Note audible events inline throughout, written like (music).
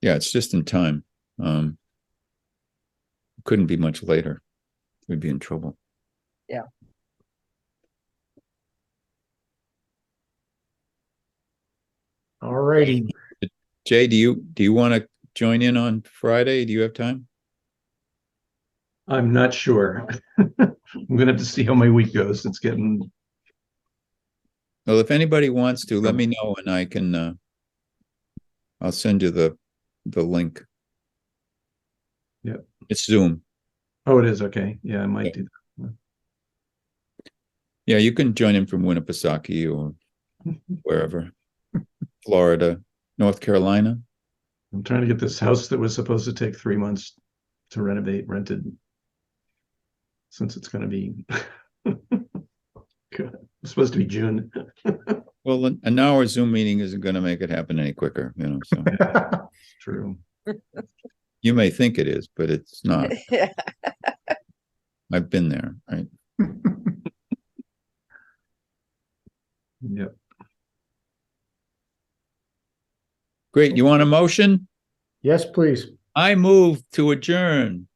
Yeah, it's just in time. Um, couldn't be much later. We'd be in trouble. All righty. Jay, do you, do you want to join in on Friday? Do you have time? I'm not sure. (laughs) I'm gonna have to see how my week goes. It's getting, Well, if anybody wants to, let me know and I can, uh, I'll send you the, the link. Yep. It's Zoom. oh, it is, okay. Yeah, I might do. Yeah, you can join in from Winnipesaukee or wherever. Florida, North Carolina. I'm trying to get this house that was supposed to take three months to renovate rented. Since it's gonna be. (laughs) God, It's supposed to be June. Well, an an hour Zoom meeting isn't going to make it happen any quicker, you know, so True. you may think it is, but it's not. (laughs) Yeah. I've been there, right? Yep, Great. You want a motion? Yes, please. I move to adjourn.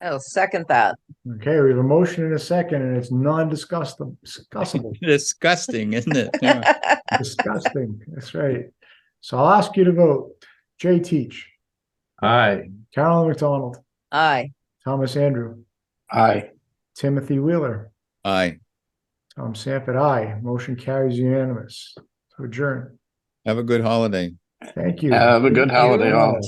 I'll Oh, second that. Okay, we have a motion and a second, and it's non-discussable, discussable, (laughs) Disgusting, isn't it? Yeah. disgusting. That's right. So I'll ask you to vote. Jay Teach, aye. Carolyn McDonald, (laughs) Aye. Thomas Andrew, Aye. Timothy Wheeler, Aye. Tom Sanford, aye. Motion carries unanimous. To Adjourn. Have a good holiday. Thank you. Have a good holiday all.